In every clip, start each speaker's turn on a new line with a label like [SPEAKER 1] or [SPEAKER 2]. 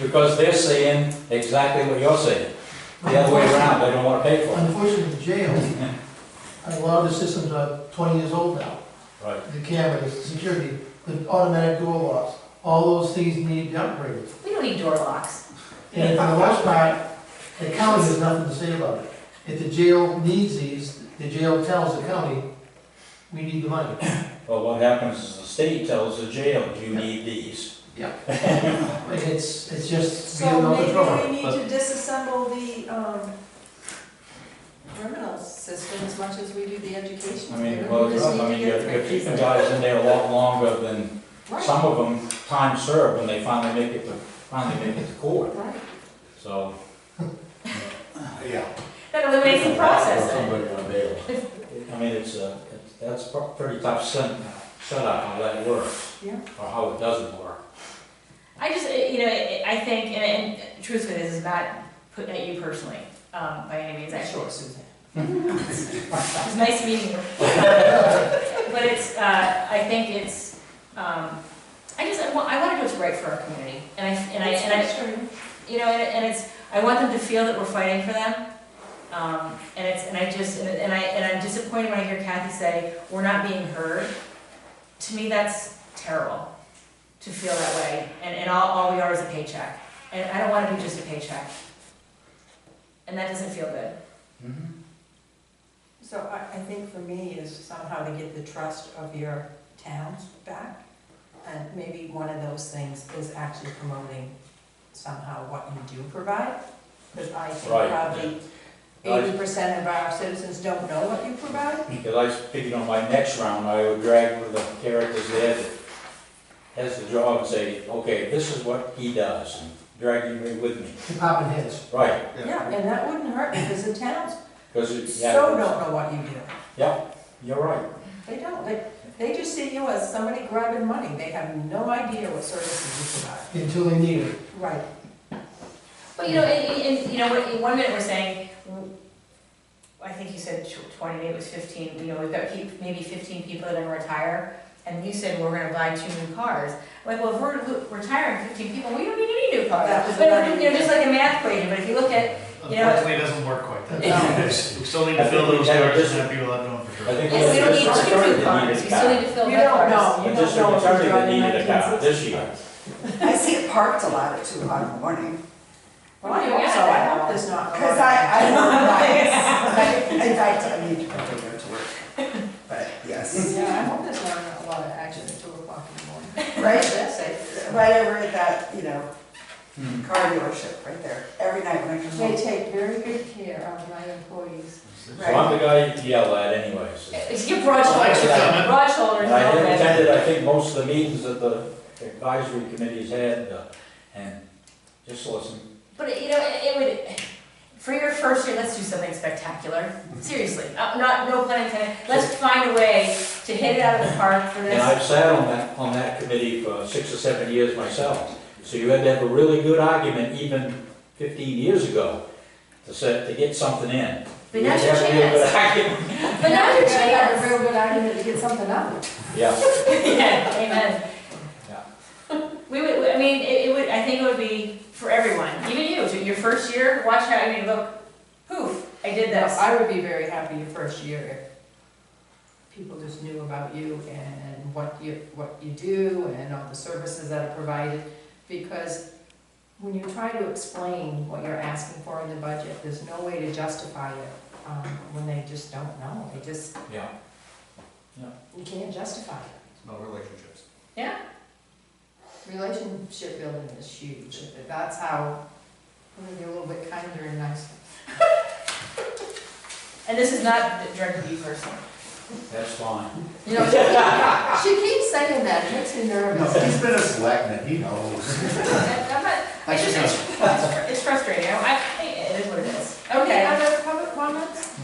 [SPEAKER 1] because they're saying exactly what you're saying. The other way around, they don't wanna pay for it.
[SPEAKER 2] Unfortunately, the jail, a lot of the systems are twenty years old now.
[SPEAKER 1] Right.
[SPEAKER 2] The cameras, the security, the automatic door locks, all those things need upgrades.
[SPEAKER 3] We don't need door locks.
[SPEAKER 2] And for the most part, the county has nothing to say about it. If the jail needs these, the jail tells the county, we need the money.
[SPEAKER 1] But what happens is the state tells the jail, you need these.
[SPEAKER 2] And it's, it's just beyond
[SPEAKER 4] So
[SPEAKER 2] our
[SPEAKER 4] maybe we
[SPEAKER 2] control.
[SPEAKER 4] need
[SPEAKER 2] But
[SPEAKER 4] to disassemble the, um, criminal system as much as we do the education.
[SPEAKER 1] I mean,
[SPEAKER 4] system.
[SPEAKER 1] well,
[SPEAKER 4] We
[SPEAKER 1] you're,
[SPEAKER 4] just
[SPEAKER 1] I
[SPEAKER 4] need
[SPEAKER 1] mean,
[SPEAKER 4] to
[SPEAKER 1] you're
[SPEAKER 4] get
[SPEAKER 1] you're
[SPEAKER 4] through
[SPEAKER 1] keeping
[SPEAKER 4] it.
[SPEAKER 1] guys in there a lot longer than,
[SPEAKER 4] Right,
[SPEAKER 1] some of them time served when they finally make it to, finally make it to court,
[SPEAKER 4] right.
[SPEAKER 1] so.
[SPEAKER 5] Yeah.
[SPEAKER 3] That eliminates the process then.
[SPEAKER 5] Somebody on bail.
[SPEAKER 1] I mean, it's a, it's- that's a pretty tough set, setup how that works.
[SPEAKER 4] Yeah.
[SPEAKER 1] Or how it doesn't work.
[SPEAKER 3] I just, eh, you know, eh, I think, and, and truthfully, this is not put at you personally, um, by any means, I sure, Susan. It's nice meeting you. But it's, uh, I think it's, um, I just, I want, I wanna do what's right for our community, and I, and I, and I,
[SPEAKER 4] It's frustrating.
[SPEAKER 3] you know, and, and it's, I want them to feel that we're fighting for them. Um, and it's, and I just, and and I, and I'm disappointed when I hear Kathy say, we're not being heard. To me, that's terrible, to feel that way, and, and all, all we are is a paycheck, and I don't wanna be just a paycheck. And that doesn't feel good.
[SPEAKER 1] Mm-hmm.
[SPEAKER 4] So I, I think for me is somehow to get the trust of your towns back. And maybe one of those things is actually promoting somehow what you do provide. Because I think
[SPEAKER 1] Right,
[SPEAKER 4] probably
[SPEAKER 1] yeah.
[SPEAKER 4] eighty percent of our citizens don't know what you provide.
[SPEAKER 1] Because I figured on my next round, I would drag one of the characters there that has the job and say, okay, this is what he does, and drag him with me.
[SPEAKER 2] department heads,
[SPEAKER 1] Right,
[SPEAKER 5] Yeah.
[SPEAKER 4] Yeah, and that wouldn't hurt because the towns
[SPEAKER 1] because it's, yeah.
[SPEAKER 4] so don't know what you do.
[SPEAKER 1] Yeah, you're right.
[SPEAKER 4] They don't, they, they just see you as somebody grabbing money. They have no idea what services you provide.
[SPEAKER 2] until they need it.
[SPEAKER 4] Right.
[SPEAKER 3] But you know, and, and- and, you know, what- in one minute we're saying, I think you said tw- twenty, maybe it was fifteen, you know, we've got peop maybe fifteen people that are gonna retire, and you said we're gonna buy two new cars. Like, well, if we're lo- retiring fifteen people, we don't need any new cars.
[SPEAKER 4] That was
[SPEAKER 3] But,
[SPEAKER 4] another-
[SPEAKER 3] you know, just like a math equation, but if you look at, you know,
[SPEAKER 6] Unfortunately, it doesn't work quite that
[SPEAKER 2] No.
[SPEAKER 6] way. We still need
[SPEAKER 1] I
[SPEAKER 6] to
[SPEAKER 1] think
[SPEAKER 6] fill
[SPEAKER 1] we
[SPEAKER 6] those
[SPEAKER 1] have
[SPEAKER 6] hours
[SPEAKER 1] just-
[SPEAKER 6] and have people that know for
[SPEAKER 1] I
[SPEAKER 6] sure.
[SPEAKER 1] think
[SPEAKER 3] yes, we don't
[SPEAKER 1] it's just
[SPEAKER 3] need two
[SPEAKER 1] attorney
[SPEAKER 3] new
[SPEAKER 1] that
[SPEAKER 3] cars,
[SPEAKER 1] needed a
[SPEAKER 3] we still need
[SPEAKER 1] car.
[SPEAKER 3] to fill
[SPEAKER 4] You
[SPEAKER 3] that
[SPEAKER 4] don't
[SPEAKER 3] cars.
[SPEAKER 4] know.
[SPEAKER 1] The
[SPEAKER 4] You don't know
[SPEAKER 1] district
[SPEAKER 4] if you're
[SPEAKER 1] attorney that
[SPEAKER 4] driving
[SPEAKER 1] needed a car
[SPEAKER 4] 1960s.
[SPEAKER 1] this year.
[SPEAKER 7] I see it parked a lot at two o'clock in the morning,
[SPEAKER 4] Well, I hope so. I hope there's not. a lot of-
[SPEAKER 7] because I, I don't know why. In fact, I need to go there to work, but yes,
[SPEAKER 4] Yeah, I hope there's not a lot of action at two o'clock in the morning.
[SPEAKER 7] right,
[SPEAKER 4] That's it.
[SPEAKER 7] right over at that, you know,
[SPEAKER 1] Hmm.
[SPEAKER 7] car dealership right there, every night when I come
[SPEAKER 4] They
[SPEAKER 7] home.
[SPEAKER 4] take very good care of my employees.
[SPEAKER 1] So I'm the guy you yell at anyways.
[SPEAKER 3] It's your broad
[SPEAKER 6] Thanks for
[SPEAKER 3] shoulders,
[SPEAKER 6] coming.
[SPEAKER 3] broad shoulders,
[SPEAKER 1] And I
[SPEAKER 3] no offense.
[SPEAKER 1] attended, I think, most of the meetings that the advisory committees had, uh, and just listen.
[SPEAKER 3] But you know, it, it would. For your first year, let's do something spectacular. Seriously, uh, not no pun intended. Let's find a way to hit it out of the park for
[SPEAKER 1] And
[SPEAKER 3] this.
[SPEAKER 1] I've sat on that, on that committee for six or seven years myself. So you had to have a really good argument even fifteen years ago to set, to get something in.
[SPEAKER 3] But
[SPEAKER 1] You had
[SPEAKER 3] now's
[SPEAKER 1] to have
[SPEAKER 3] your
[SPEAKER 1] a real good
[SPEAKER 3] chance.
[SPEAKER 1] argument.
[SPEAKER 3] But now's your
[SPEAKER 4] I have a
[SPEAKER 3] chance.
[SPEAKER 4] real good argument to get something up.
[SPEAKER 1] Yeah,
[SPEAKER 3] yeah, amen. We would. I mean, it, it would. I think it would be for everyone, even you. So Your first year, watch how. I mean, look, poof, I did this.
[SPEAKER 4] I would be very happy your first year if people just knew about you and what you, what you do and all the services that are provided. Because when you try to explain what you're asking for in the budget, there's no way to justify it, um, when they just don't know, they just,
[SPEAKER 1] yeah.
[SPEAKER 4] you can't justify it.
[SPEAKER 6] No relationships.
[SPEAKER 4] Relationship building is huge, but that's how, we're gonna be a little bit kinder and nicer.
[SPEAKER 3] And this is not directed at you personally.
[SPEAKER 1] That's fine.
[SPEAKER 4] You know, she keeps, she keeps saying that, it makes me
[SPEAKER 5] No,
[SPEAKER 4] nervous.
[SPEAKER 5] he's been a selectman, he knows.
[SPEAKER 3] I'm not. It's just. It's, it's- it's frustrating. I, I. It is what it is.
[SPEAKER 4] Okay, other public comments?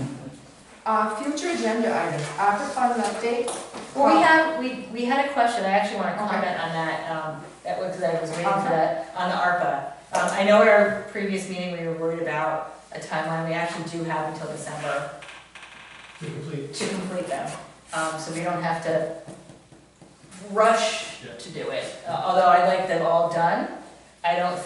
[SPEAKER 4] Uh, future agenda items, ARPA fund update?
[SPEAKER 3] Well, we have, we, we had a question, I actually want to
[SPEAKER 4] Okay.
[SPEAKER 3] comment on that, um, that was, because I was waiting for that, on the ARPA. Um, I know at our previous meeting, we were worried about a timeline, we actually do have until December
[SPEAKER 2] to complete.
[SPEAKER 3] to complete them. Um, so we don't have to rush
[SPEAKER 6] Yeah.
[SPEAKER 3] to do it, Uh, although I like them all done. I don't